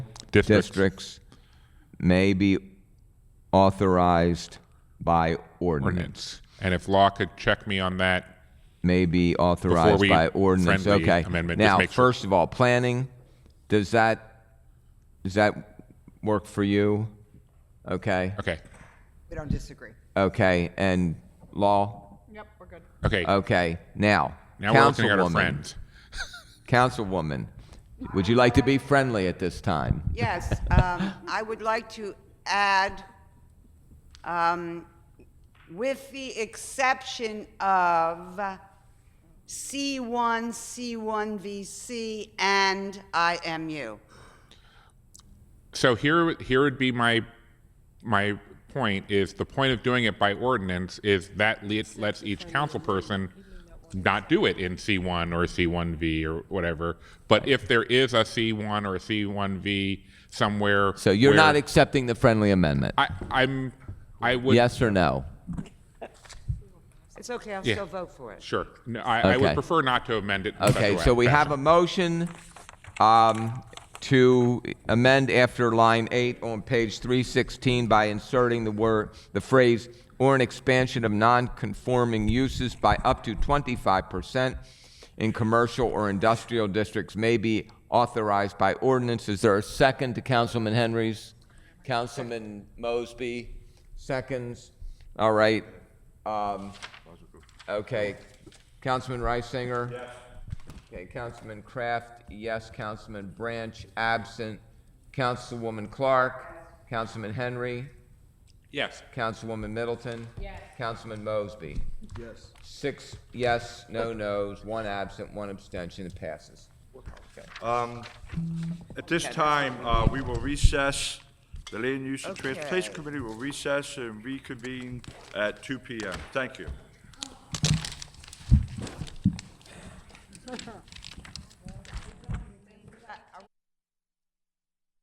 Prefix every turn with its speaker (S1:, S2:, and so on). S1: Districts.
S2: districts may be authorized by ordinance.
S1: ordinance. And if law could check me on that,
S2: May be
S1: Before
S2: authorized
S1: we-
S2: by ordinance.
S1: friendly
S2: Okay.
S1: amendment, just
S2: Now,
S1: make sure.
S2: first of all, planning, does that, does that work for you? Okay.
S1: okay,
S3: We don't disagree.
S2: Okay. And law?
S4: Yep, we're good.
S1: okay.
S2: Okay. Now,
S1: now we're looking at our
S2: Uh, Councilwoman.
S1: friends.
S2: Councilwoman, would you like to be friendly at this time?
S3: Yes, um, I would like to add, um, with the exception of C1, C1VC, and IMU.
S1: So here, here would be my, my point is the point of doing it by ordinance is that le- lets each council person not do it in C1 or C1V or whatever. But if there is a C1 or a C1V somewhere.
S2: So you're
S1: where-
S2: not accepting the friendly amendment?
S1: I, I'm, I would.
S2: Yes or no?
S3: It's okay, I'll
S1: Yeah.
S3: still vote for it.
S1: Sure. No, I, I would
S2: Okay.
S1: prefer not to amend it. in such a
S2: Okay,
S1: way.
S2: so we
S1: That's-
S2: have a motion um, to amend after line eight on page 316 by inserting the word, the phrase, "or an expansion of non-conforming uses by up to 25% in commercial or industrial districts may be authorized by ordinance." Is there a second to Councilman Henry's? Councilman Mosby, seconds. All right. um, Okay. Councilman Reisinger? Yes. Okay, Councilman Kraft, yes. Councilman Branch, absent. Councilwoman Clark? Councilman Henry?
S1: Yes.
S2: Councilwoman Middleton? Yes. Councilman Mosby? Yes. Six yes, no nos, one absent, one abstention. It passes.
S5: At this time, uh, we will recess, the Land Use and Transportation
S3: Okay.
S5: Committee will recess and reconvene at two PM. Thank you.